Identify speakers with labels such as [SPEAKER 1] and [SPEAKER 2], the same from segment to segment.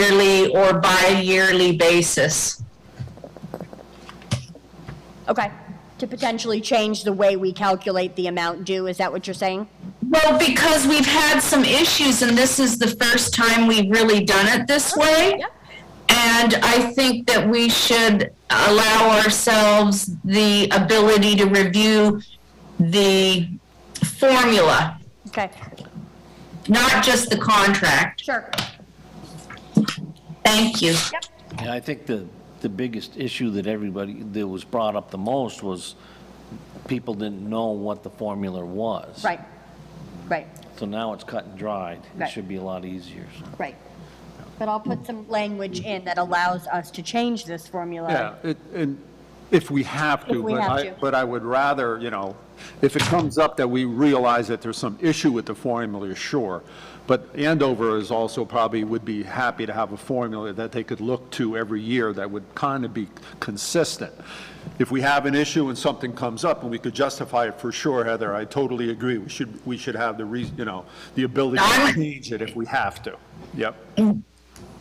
[SPEAKER 1] yearly or bi-yearly basis.
[SPEAKER 2] Okay, to potentially change the way we calculate the amount due, is that what you're saying?
[SPEAKER 1] Well, because we've had some issues and this is the first time we've really done it this way.
[SPEAKER 2] Yep.
[SPEAKER 1] And I think that we should allow ourselves the ability to review the formula,
[SPEAKER 2] Okay,
[SPEAKER 1] not just the contract.
[SPEAKER 2] sure.
[SPEAKER 1] Thank you.
[SPEAKER 3] And I think the, the biggest issue that everybody, that was brought up the most was people didn't know what the formula was.
[SPEAKER 2] Right, right,
[SPEAKER 3] So now it's cut and dried. It
[SPEAKER 2] Right.
[SPEAKER 3] should be a lot easier. so.
[SPEAKER 2] right. But I'll put some language in that allows us to change this formula.
[SPEAKER 4] Yeah, it- and if we have to.
[SPEAKER 2] If we
[SPEAKER 4] but
[SPEAKER 2] have
[SPEAKER 4] I-
[SPEAKER 2] to.
[SPEAKER 4] But I would rather, you know, if it comes up that we realize that there's some issue with the formula, sure. But Andover is also probably, would be happy to have a formula that they could look to every year that would kind of be consistent. If we have an issue and something comes up and we could justify it for sure, Heather, I totally agree. We should, we should have the reason, you know, the ability to
[SPEAKER 1] I'm-
[SPEAKER 4] change it if we have to. Yep.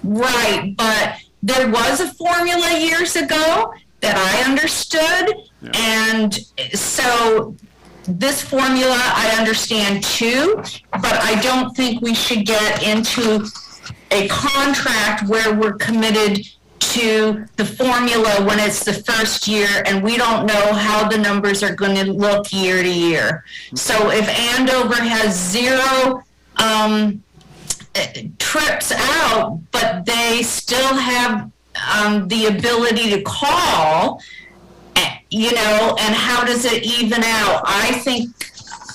[SPEAKER 1] Right, but there was a formula years ago that I understood,
[SPEAKER 4] Yeah.
[SPEAKER 1] and so this formula I understand too, but I don't think we should get into a contract where we're committed to the formula when it's the first year and we don't know how the numbers are going to look year to year. So if Andover has zero, um, trips out, but they still have um, the ability to call, eh, you know, and how does it even out? I think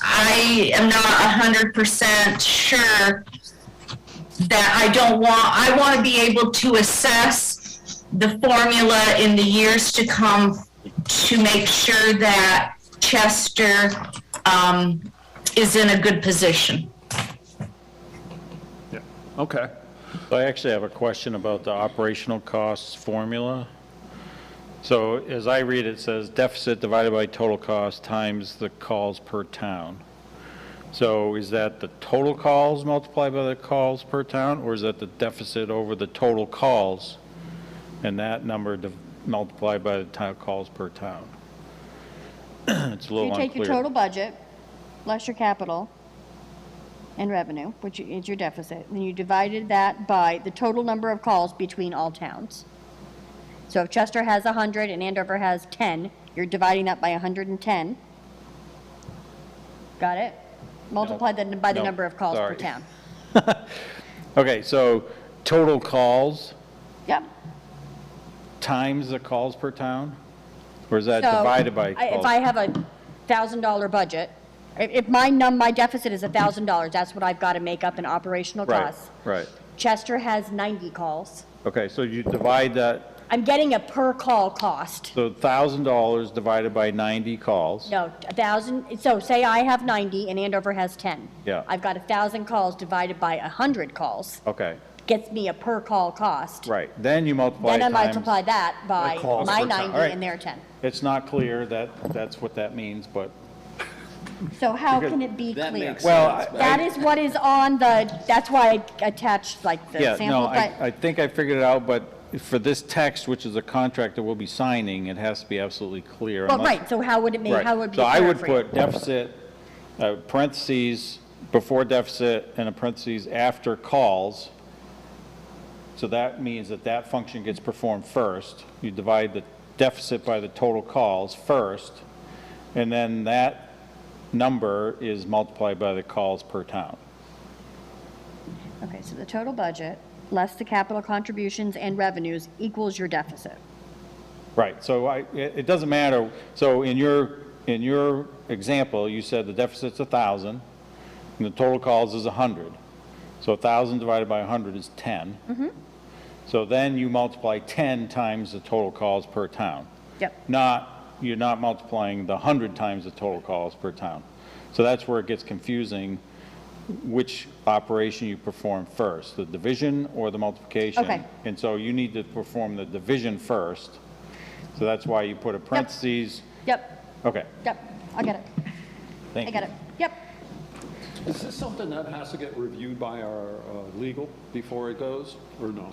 [SPEAKER 1] I am not 100% sure that I don't want, I want to be able to assess the formula in the years to come to make sure that Chester um, is in a good position.
[SPEAKER 4] Yeah. Okay.
[SPEAKER 5] I actually have a question about the operational costs formula. So as I read, it says deficit divided by total cost times the calls per town. So is that the total calls multiplied by the calls per town, or is that the deficit over the total calls? And that number div- multiplied by the town calls per town? It's a
[SPEAKER 2] So
[SPEAKER 5] little
[SPEAKER 2] You
[SPEAKER 5] unclear.
[SPEAKER 2] take your total budget, plus your capital and revenue, which is your deficit, and you divided that by the total number of calls between all towns. So if Chester has 100 and Andover has 10, you're dividing that by 110. Got it? Multiply that by the
[SPEAKER 5] No,
[SPEAKER 2] number of calls per
[SPEAKER 5] sorry.
[SPEAKER 2] town.
[SPEAKER 5] Okay, so total calls
[SPEAKER 2] Yep.
[SPEAKER 5] times the calls per town? Or is that
[SPEAKER 2] So,
[SPEAKER 5] divided by
[SPEAKER 2] I-
[SPEAKER 5] calls?
[SPEAKER 2] If I have a $1,000 budget, i- if my num, my deficit is $1,000, that's what I've got to make up in operational
[SPEAKER 5] Right,
[SPEAKER 2] costs.
[SPEAKER 5] right.
[SPEAKER 2] Chester has 90 calls.
[SPEAKER 5] Okay, so you divide that,
[SPEAKER 2] I'm getting a per call cost.
[SPEAKER 5] so $1,000 divided by 90 calls.
[SPEAKER 2] No, a 1,000, so say I have 90 and Andover has 10.
[SPEAKER 5] Yeah.
[SPEAKER 2] I've got a 1,000 calls divided by 100 calls,
[SPEAKER 5] Okay,
[SPEAKER 2] gets me a per call cost.
[SPEAKER 5] right. Then you multiply
[SPEAKER 2] Then I multiply
[SPEAKER 5] times.
[SPEAKER 2] that by
[SPEAKER 4] calls
[SPEAKER 2] my
[SPEAKER 4] per time.
[SPEAKER 2] 90
[SPEAKER 5] Alright.
[SPEAKER 2] and their 10.
[SPEAKER 5] It's not clear that, that's what that means, but,
[SPEAKER 2] So how can it be clear?
[SPEAKER 5] well, I-
[SPEAKER 2] That is what is on the, that's why I attached like the
[SPEAKER 5] yeah, no,
[SPEAKER 2] sample,
[SPEAKER 5] I,
[SPEAKER 2] but,
[SPEAKER 5] I think I figured it out, but for this text, which is a contract that we'll be signing, it has to be absolutely clear.
[SPEAKER 2] well,
[SPEAKER 5] unless-
[SPEAKER 2] right, so how would it make,
[SPEAKER 5] Right.
[SPEAKER 2] how would it be
[SPEAKER 5] So I
[SPEAKER 2] clear
[SPEAKER 5] would
[SPEAKER 2] for you?
[SPEAKER 5] put deficit, uh, parentheses, before deficit, and a parentheses after calls. So that means that that function gets performed first. You divide the deficit by the total calls first, and then that number is multiplied by the calls per town.
[SPEAKER 2] Okay, so the total budget, less the capital contributions and revenues equals your deficit.
[SPEAKER 5] Right, so I, it, it doesn't matter, so in your, in your example, you said the deficit's a thousand, and the total calls is a hundred. So a thousand divided by a hundred is 10 So then you multiply ten times the total calls per town.
[SPEAKER 2] Yep.
[SPEAKER 5] Not, you're not multiplying the hundred times the total calls per town. So that's where it gets confusing, which operation you perform first, the division or the multiplication.
[SPEAKER 2] Okay.
[SPEAKER 5] And so you need to perform the division first, so that's why you put a parentheses.
[SPEAKER 2] Yep,
[SPEAKER 5] Okay,
[SPEAKER 2] yep, I get it.
[SPEAKER 5] thank
[SPEAKER 2] I
[SPEAKER 5] you.
[SPEAKER 2] got it. Yep.
[SPEAKER 4] Is this something that has to get reviewed by our uh, legal before it goes, or no?